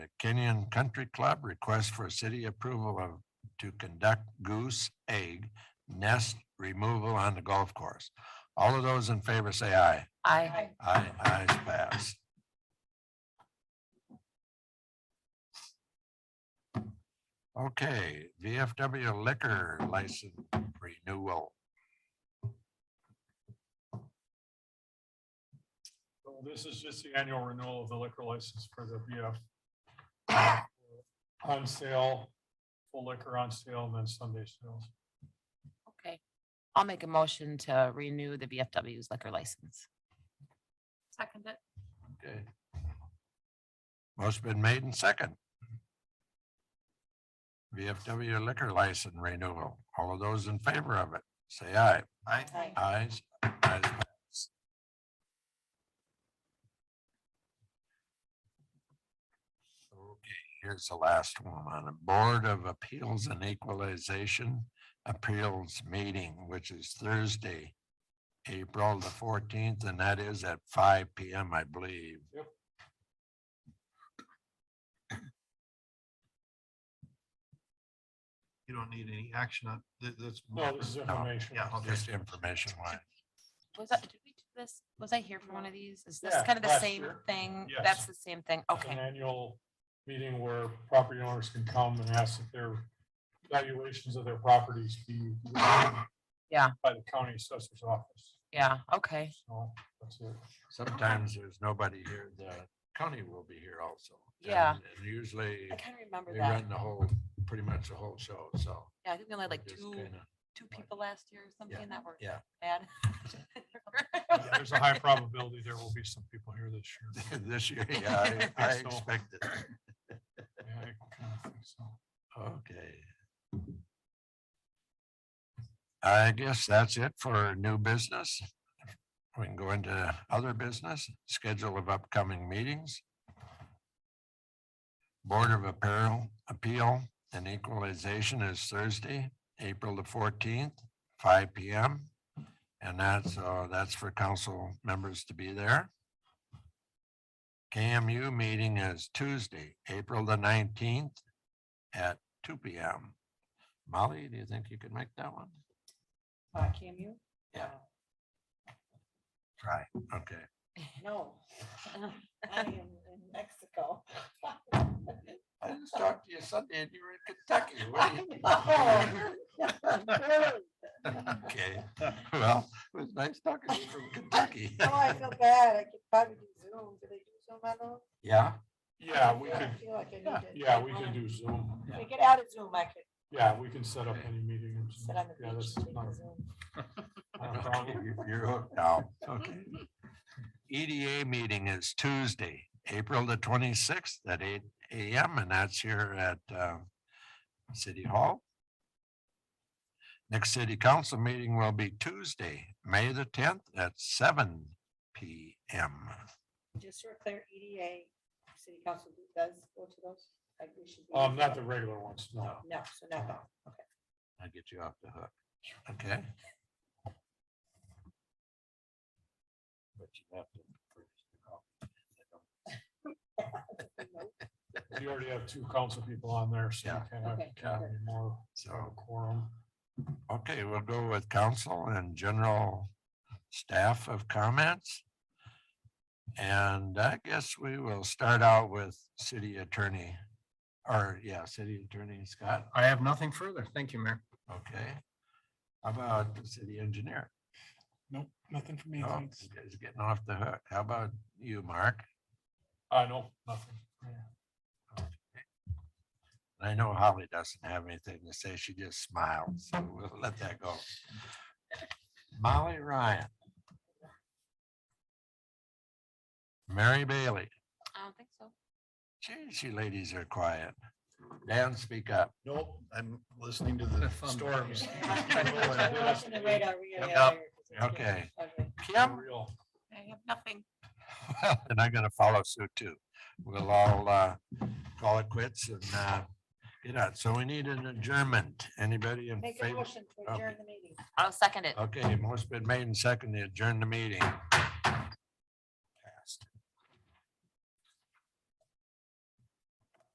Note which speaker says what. Speaker 1: The Kenyon Country Club requests for city approval of, to conduct goose egg nest removal on the golf course. All of those in favor say aye.
Speaker 2: I,
Speaker 1: Aye, ayes passed. Okay, VFW liquor license renewal.
Speaker 3: So This is just the annual renewal of the liquor license for the BF. On sale, full liquor on sale, and then Sunday sales.
Speaker 2: okay. I'll make a motion to renew the VFW's liquor license. Second it.
Speaker 1: Okay. Most been made and second. VFW liquor license renewal. All of those in favor of it, say aye. Aye.
Speaker 2: Aye.
Speaker 1: Ayes, ayes passed. Okay, here's the last one on the Board of Appeals and Equalization Appeals Meeting, which is Thursday, April the fourteenth, and that is at five P M, I believe.
Speaker 3: Yep.
Speaker 4: You don't need any action on, th- that's.
Speaker 3: No, this is information.
Speaker 4: Yeah, okay.
Speaker 1: Just information wise.
Speaker 2: Was that, did we do this? Was I here for one of these? Is this
Speaker 3: Yeah,
Speaker 2: kind of the
Speaker 3: last
Speaker 2: same
Speaker 3: year.
Speaker 2: thing?
Speaker 3: Yes.
Speaker 2: That's the same thing.
Speaker 3: It's An
Speaker 2: Okay,
Speaker 3: annual meeting where property owners can come and ask that their valuations of their properties be.
Speaker 2: Yeah.
Speaker 3: By the county assessor's office.
Speaker 2: yeah, okay.
Speaker 3: So that's it.
Speaker 1: Sometimes there's nobody here. The county will be here also.
Speaker 2: Yeah.
Speaker 1: And- And usually
Speaker 2: I kind of remember
Speaker 1: they
Speaker 2: that.
Speaker 1: run the whole, pretty much the whole show, so.
Speaker 2: Yeah, I think we only had like
Speaker 1: just
Speaker 2: two,
Speaker 1: kinda-
Speaker 2: two people last year or something that were
Speaker 1: yeah.
Speaker 2: bad.
Speaker 3: Yeah, There's a high probability there will be some people here this year.
Speaker 1: This year, yeah, I I
Speaker 3: So-
Speaker 1: expected.
Speaker 3: Yeah, I kinda think so.
Speaker 1: Okay. I guess that's it for new business. We can go into other business, schedule of upcoming meetings. Board of Apparel Appeal and Equalization is Thursday, April the fourteenth, five P M. And that's, uh, that's for council members to be there. KMU meeting is Tuesday, April the nineteenth, at two P M. Molly, do you think you could make that one?
Speaker 2: Can you?
Speaker 1: Yeah. Try, okay.
Speaker 5: No. I am in Mexico.
Speaker 1: I just talked to you Sunday and you were in Kentucky. What do you-
Speaker 5: Oh,
Speaker 1: Okay, well, it was nice talking to you from Kentucky.
Speaker 5: I feel bad. I could probably do Zoom. Do they do Zoom at all?
Speaker 1: Yeah,
Speaker 3: Yeah, we
Speaker 5: I
Speaker 3: could,
Speaker 5: feel like I need
Speaker 1: Yeah,
Speaker 5: to-
Speaker 3: yeah, we can do Zoom.
Speaker 5: If I get out of Zoom, I could
Speaker 3: Yeah, we can set up any meeting. in Zoom.
Speaker 5: sit on the
Speaker 3: Yeah,
Speaker 5: beach
Speaker 3: that's
Speaker 5: and take
Speaker 3: not
Speaker 5: a
Speaker 3: a-
Speaker 5: Zoom.
Speaker 3: not a
Speaker 1: okay,
Speaker 3: problem.
Speaker 1: you- you're hooked now, okay. EDA meeting is Tuesday, April the twenty-sixth at eight A M and that's here at uh, City Hall. Next city council meeting will be Tuesday, May the tenth at seven P M.
Speaker 5: Just for clear, EDA, city council does go to those? Like we should be-
Speaker 3: Um, not the regular ones, no.
Speaker 5: No, so not that. Okay.
Speaker 1: I get you off the hook. Okay. But you have to. produce the copy.
Speaker 3: You already have two council people on there, so you
Speaker 1: Yeah.
Speaker 3: can't have
Speaker 5: Okay,
Speaker 3: can't have any more
Speaker 4: Oh.
Speaker 3: of a
Speaker 1: So,
Speaker 3: quorum.
Speaker 1: okay, we'll go with council and general staff of comments. And I guess we will start out with city attorney, or yeah, city attorney Scott,
Speaker 4: I have nothing further. Thank you, Mayor.
Speaker 1: okay? How about the city engineer?
Speaker 3: Nope, nothing for me,
Speaker 1: Oh, this guy's getting off the hook. How about you, Mark?
Speaker 3: I know, Uh, nothing.
Speaker 1: I know Holly doesn't have anything to say. She just smiled, so we'll let that go. Molly Ryan. Mary Bailey.
Speaker 2: I don't think so.
Speaker 1: Geez, you ladies are quiet. Dan, speak up.
Speaker 4: Nope, I'm listening to the storms.
Speaker 5: We're watching the radar. We gotta
Speaker 1: Yep.
Speaker 5: hire-
Speaker 1: Okay.
Speaker 5: Okay.
Speaker 1: Kim?
Speaker 3: Real.
Speaker 2: I have nothing.
Speaker 1: And I'm gonna follow suit too. We'll all uh call it quits and uh get out. So we need an adjournment. Anybody in
Speaker 5: Make a
Speaker 1: favor?
Speaker 5: motion to adjourn the meeting.
Speaker 2: I'll second it.
Speaker 1: Okay, most been made and seconded to adjourn the meeting.